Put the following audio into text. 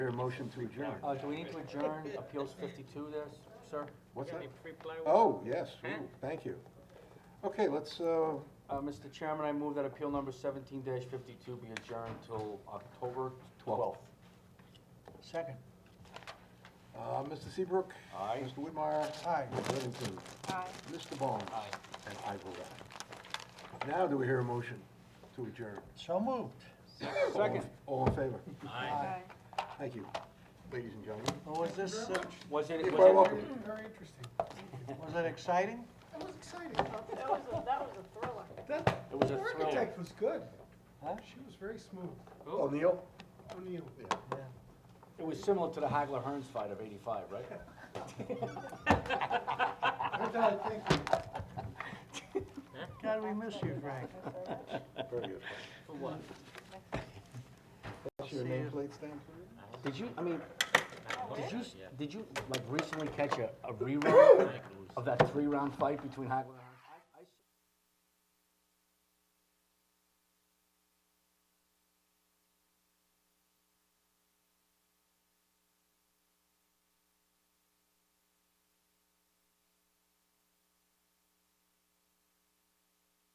a motion to adjourn? Uh, do we need to adjourn appeals fifty-two there, s- sir? What's that? Reply Oh, yes, ooh, thank you. Okay, let's, uh, Uh, Mr. Chairman, I move that appeal number seventeen fifty-two be adjourned till October twelfth. Second. uh, Mr. Seabrook. Aye. Mr. Whitmire. Aye. Mr. Livingston. Aye. Mr. Barnes. Aye. And I vote aye. Now do we hear a motion to adjourn? So moved. All- Second. All in favor? Aye. Thank you, ladies and gentlemen. Well, Was this, uh, Was it, You're quite was it, welcome. Very interesting. was it exciting? That was exciting. That was a, that was a thriller. That, it was the a thriller. architect was good. Huh? She was very smooth. O'Neill? O'Neill. It was similar to the Hagler Hearns fight of eighty-five, right? I thought, thank you. God, we miss you, Frank. Very good. for what? What's your nameplate stand, please? Did you, I mean, did you, s- did you, like, recently catch a, a rerun of that three-round fight between Hagler and Hearns?